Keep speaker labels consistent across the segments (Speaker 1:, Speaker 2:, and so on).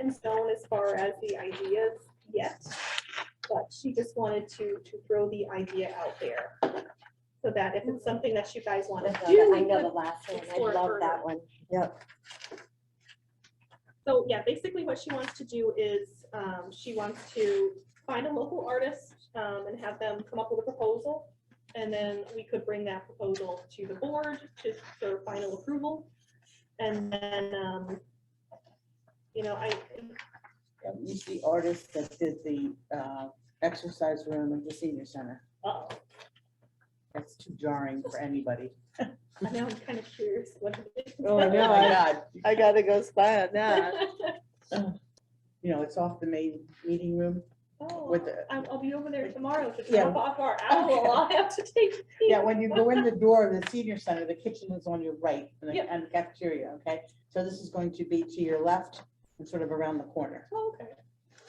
Speaker 1: in stone as far as the ideas yet, but she just wanted to, to throw the idea out there. So that if it's something that you guys want
Speaker 2: I know
Speaker 1: to do,
Speaker 2: the- uh, I
Speaker 1: we
Speaker 2: know
Speaker 1: could-
Speaker 2: the last one, I
Speaker 1: explore it
Speaker 2: love
Speaker 1: further.
Speaker 2: that one. Yep.
Speaker 1: so yeah, basically what she wants to do is, um, she wants to find a local artist, um, and have them come up with a proposal. And then we could bring that proposal to the board to, for final approval. And then, um, you know, I,
Speaker 3: At least the artist that did the uh, exercise room at the senior center.
Speaker 1: uh,
Speaker 3: That's too jarring for anybody.
Speaker 1: I know, I'm kind of curious what it is.
Speaker 3: Oh, my God.
Speaker 4: I gotta go spy on that.
Speaker 3: You know, it's off the main meeting room.
Speaker 1: Oh,
Speaker 3: With the-
Speaker 1: I'll, I'll be over there tomorrow to
Speaker 3: Yeah.
Speaker 1: drop off our owl. I'll have to take.
Speaker 3: Yeah, when you go in the door of the senior center, the kitchen is on your right and the-
Speaker 1: Yep.
Speaker 3: and the cafeteria, okay? So this is going to be to your left and sort of around the corner.
Speaker 1: Oh, okay.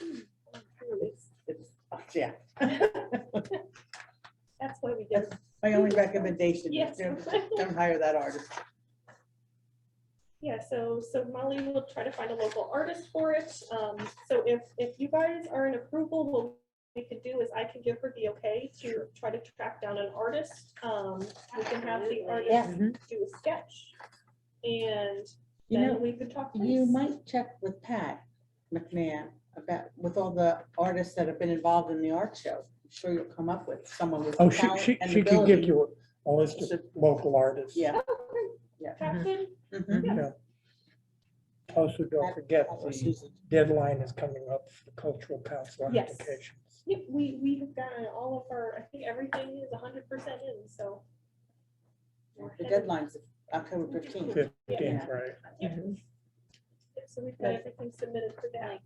Speaker 1: Hmm. Curious.
Speaker 3: It's, yeah,
Speaker 1: That's why we get.
Speaker 3: my only recommendation
Speaker 1: Yes.
Speaker 3: is don't don't hire that artist.
Speaker 1: Yeah, so, so Molly will try to find a local artist for it. Um, so if, if you guys are in approval, what we could do is I could give her the okay to try to track down an artist. Um, we can have the
Speaker 2: Absolutely.
Speaker 1: artist do a sketch. And
Speaker 3: You know,
Speaker 1: then we could talk.
Speaker 3: You
Speaker 1: price.
Speaker 3: might check with Pat McMahon about, with all the artists that have been involved in the art show. I'm sure you'll come up with someone with
Speaker 5: Oh, she,
Speaker 3: talent
Speaker 5: she,
Speaker 3: and
Speaker 5: she could give
Speaker 3: ability.
Speaker 5: you a list of local artists.
Speaker 3: Yeah.
Speaker 1: Oh, great.
Speaker 3: Yeah.
Speaker 1: Captain,
Speaker 3: Mhm.
Speaker 5: Yeah. Also, don't forget,
Speaker 3: Or
Speaker 5: the
Speaker 3: Susan.
Speaker 5: deadline is coming up for cultural council
Speaker 1: Yes.
Speaker 5: applications.
Speaker 1: Yep, we, we have gotten all of our, I think everything is hundred percent in, so. we're
Speaker 3: The
Speaker 1: headed-
Speaker 3: deadline's October fifteenth.
Speaker 5: Fifteenth, right?
Speaker 1: yeah.
Speaker 3: mhm.
Speaker 1: Yep, So we've got everything submitted for that.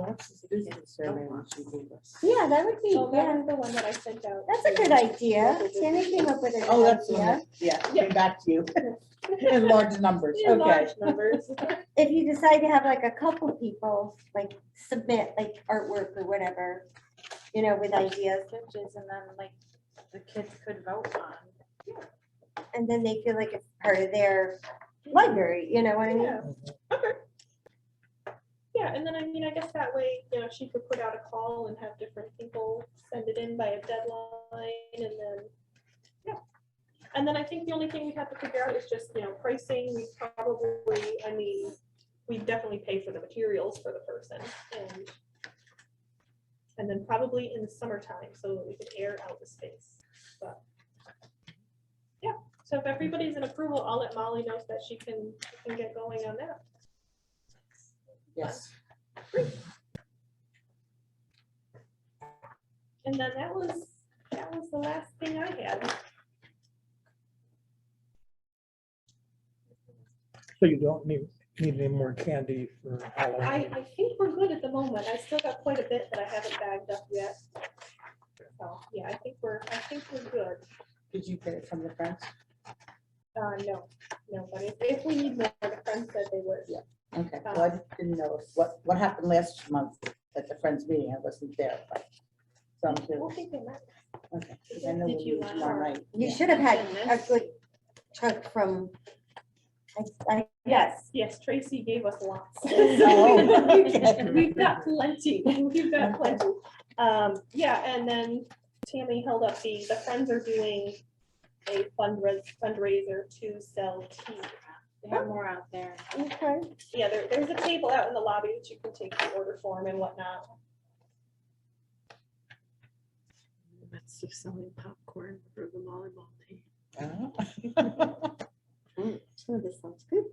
Speaker 3: Oh,
Speaker 2: Yeah, that would be,
Speaker 1: So that
Speaker 2: yeah,
Speaker 1: was the one that I sent out.
Speaker 2: that's a good idea. Tina came up with an
Speaker 3: Oh, that's, the one
Speaker 2: idea.
Speaker 3: that- yeah,
Speaker 1: Yeah.
Speaker 3: came back to you in large numbers,
Speaker 1: In
Speaker 3: okay.
Speaker 1: large numbers.
Speaker 2: If you decide to have like a couple people, like submit like artwork or whatever, you know, with ideas,
Speaker 6: sketches and then like the kids could vote on.
Speaker 2: and then they feel like it's part of their library, you know what I mean?
Speaker 1: Yeah, okay. Yeah, and then I mean, I guess that way, you know, she could put out a call and have different people send it in by a deadline and then, yeah. And then I think the only thing we have to figure out is just, you know, pricing, we probably, I mean, we definitely pay for the materials for the person and and then probably in the summertime, so that we could air out the space, but. Yeah, so if everybody's in approval, I'll let Molly know so that she can, can get going on that.
Speaker 3: Yes,
Speaker 1: And then that was, that was the last thing I had.
Speaker 5: So you don't need, need any more candy for
Speaker 1: I,
Speaker 5: Halloween.
Speaker 1: I think we're good at the moment. I still got quite a bit that I haven't bagged up yet. So, yeah, I think we're, I think we're good.
Speaker 3: did you get it from the friends?
Speaker 1: Uh, no, no, but if, if we need more, the friends said they would.
Speaker 3: Yeah. Okay, well, I just didn't know if- what, what happened last month at the friends meeting, I wasn't there, but. So I'm
Speaker 1: I don't
Speaker 3: curious,
Speaker 1: think they meant.
Speaker 3: okay. 'cause I know
Speaker 1: Did
Speaker 3: we'll
Speaker 1: you
Speaker 3: meet
Speaker 1: want
Speaker 3: tomorrow
Speaker 1: our-
Speaker 3: night,
Speaker 2: You
Speaker 3: yeah.
Speaker 2: should have had
Speaker 1: Goodness.
Speaker 2: a good chunk from, I, I, yes.
Speaker 1: Yes, Tracy gave us lots.
Speaker 3: Oh, okay.
Speaker 1: We've got plenty, we've got plenty. Um, yeah, and then Tammy held up the, the Friends are doing a fundra- fundraiser to sell tea.
Speaker 6: They have more out there.
Speaker 2: Okay.
Speaker 1: Yeah, there, there's a table out in the lobby that you can take the order form and whatnot.
Speaker 7: midst of selling popcorn for the volleyball team.
Speaker 3: Oh.
Speaker 2: Oh, this sounds good.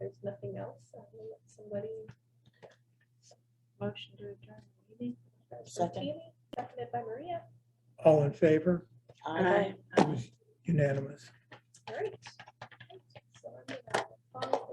Speaker 1: There's nothing else. I will let Somebody.
Speaker 6: Motion to adjourn the meeting.
Speaker 1: from
Speaker 3: Second.
Speaker 1: Tammy, Seconded by Maria.
Speaker 5: All in favor?
Speaker 3: Aye.
Speaker 5: It was Unanimous.
Speaker 1: All right. So I'm gonna follow